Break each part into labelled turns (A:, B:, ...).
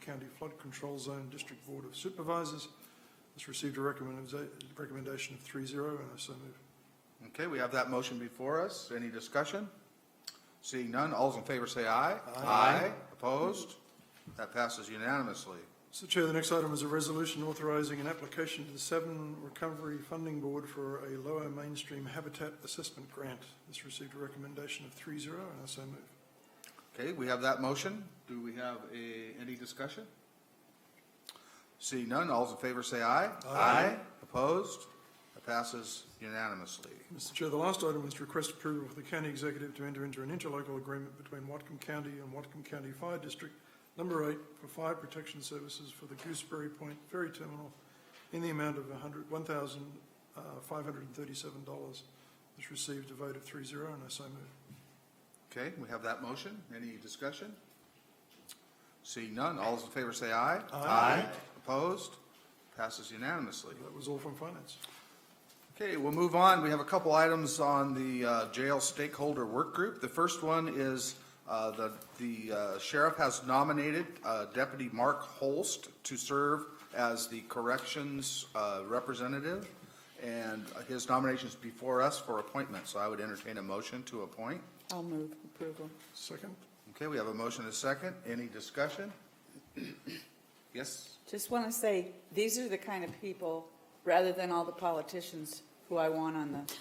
A: County Flood Control Zone District Board of Supervisors. It's received a recommenda- recommendation of three zero, and I so move.
B: Okay, we have that motion before us. Any discussion? Seeing none, all's in favor say aye. Aye. Opposed? That passes unanimously.
A: Mr. Chair, the next item is a resolution authorizing an application to the Seven Recovery Funding Board for a lower mainstream habitat assessment grant. This received a recommendation of three zero, and I so move.
B: Okay, we have that motion. Do we have a, any discussion? Seeing none, all's in favor say aye. Aye. Opposed? That passes unanimously.
A: Mr. Chair, the last item is to request approval for the county executive to enter into an interlocal agreement between Watcom County and Watcom County Fire District Number Eight for fire protection services for the Gooseberry Point Ferry Terminal in the amount of a hundred, one thousand, uh, five hundred and thirty-seven dollars. This received a vote of three zero, and I so move.
B: Okay, we have that motion. Any discussion? Seeing none, all's in favor say aye. Aye. Opposed? Passes unanimously.
A: That was all from finance.
B: Okay, we'll move on. We have a couple items on the uh, jail stakeholder work group. The first one is uh, the the uh, sheriff has nominated uh, Deputy Mark Holst to serve as the corrections uh, representative, and his nomination's before us for appointment, so I would entertain a motion to appoint.
C: I'll move approval.
A: Second?
B: Okay, we have a motion and a second. Any discussion? Yes?
C: Just want to say, these are the kind of people, rather than all the politicians, who I want on the,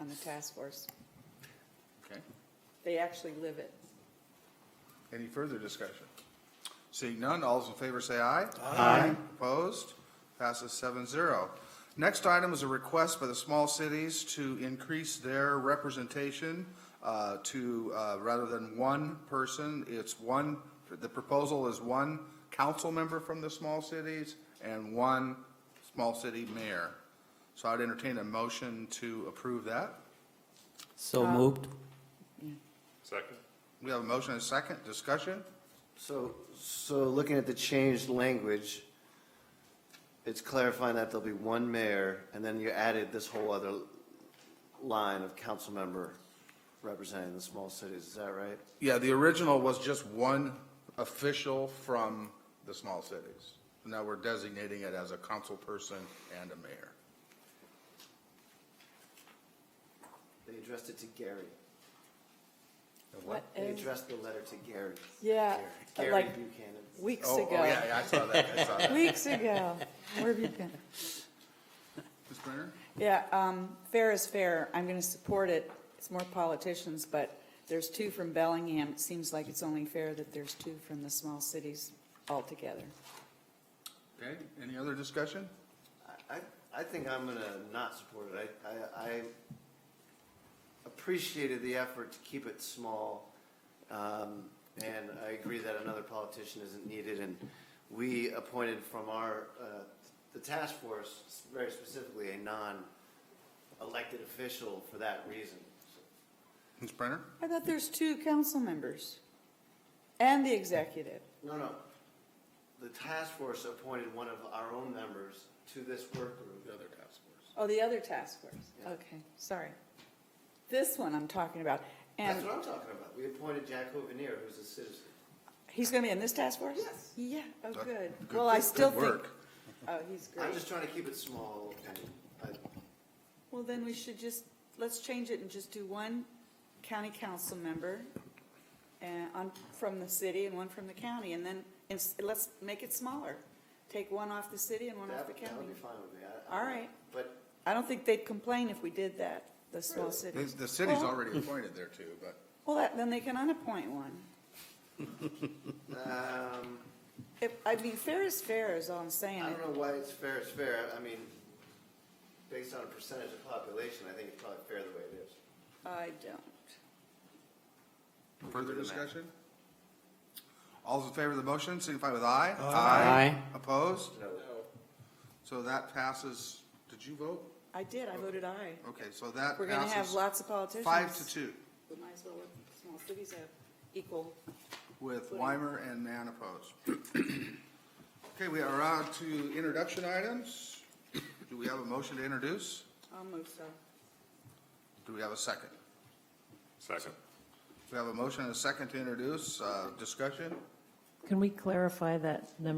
C: on the task force.
B: Okay.
C: They actually live it.
B: Any further discussion? Seeing none, all's in favor say aye. Aye. Opposed? Passes seven zero. Next item is a request by the small cities to increase their representation uh, to, uh, rather than one person, it's one, the proposal is one council member from the small cities and one small city mayor. So I'd entertain a motion to approve that.
D: So moved.
E: Second.
B: We have a motion and a second. Discussion?
F: So, so looking at the changed language, it's clarifying that there'll be one mayor, and then you added this whole other line of council member representing the small cities, is that right?
B: Yeah, the original was just one official from the small cities. Now we're designating it as a council person and a mayor.
F: They addressed it to Gary.
C: What?
F: They addressed the letter to Gary.
C: Yeah,
F: Gary
C: like,
F: Buchanan.
C: weeks
B: Oh, oh,
C: ago.
B: yeah, yeah, I saw that, I saw that.
C: Weeks ago. Where have you been?
B: Ms. Brenner?
C: Yeah, um, fair is fair. I'm going to support it. It's more politicians, but there's two from Bellingham. It seems like it's only fair that there's two from the small cities altogether.
B: Okay, any other discussion?
F: I, I think I'm gonna not support it. I, I, I appreciated the effort to keep it small. Um, and I agree that another politician isn't needed and we appointed from our, uh, the task force, very specifically, a non-elected official for that reason.
B: Ms. Brenner?
C: I thought there's two council members and the executive.
F: No, no. The task force appointed one of our own members to this work group.
B: other task force.
C: Oh, the other task force.
F: Yeah.
C: Okay, sorry. This one I'm talking about.
F: That's
C: And
F: what I'm talking about. We appointed Jack Hovenier, who's a citizen.
C: he's going to be in this task force?
F: Yes.
C: Yeah, oh,
B: Good-
C: good.
B: good-
C: Well, I
B: good
C: still think,
B: work.
C: oh, he's
F: I'm
C: great.
F: just trying to keep it small and I,
C: Well, then we should just, let's change it and just do one county council member and on, from the city and one from the county. And then, it's- let's make it smaller. Take one off the city and one off
F: That,
C: the
F: that
C: county.
F: would be fine with me. I- I-
C: All right.
F: But
C: I don't think they'd complain if we did that, the small cities.
B: The city's
C: Well-
B: already appointed there too, but
C: Well, that- then they can unappoint one.
F: um,
C: If, I mean, fair is fair is all I'm saying.
F: I don't know why it's fair, it's fair. I mean, based on a percentage of population, I think it's probably fair the way it is.
C: I don't.
B: further discussion? All's in favor of the motion, signify with aye.
D: Aye.
B: Opposed?
F: No.
B: So that passes, did you vote?
C: I did, I voted aye.
B: Okay, so that
C: We're gonna have
B: passes
C: lots of politicians.
B: five to two
C: We might as well let the small cities have equal.
B: with Weimer and Mann opposed. Okay, we are on to introduction items. Do we have a motion to introduce?
C: I'll move so.
B: Do we have a second?
E: Second.
B: We have a motion and a second to introduce, uh, discussion?
G: Can we clarify that number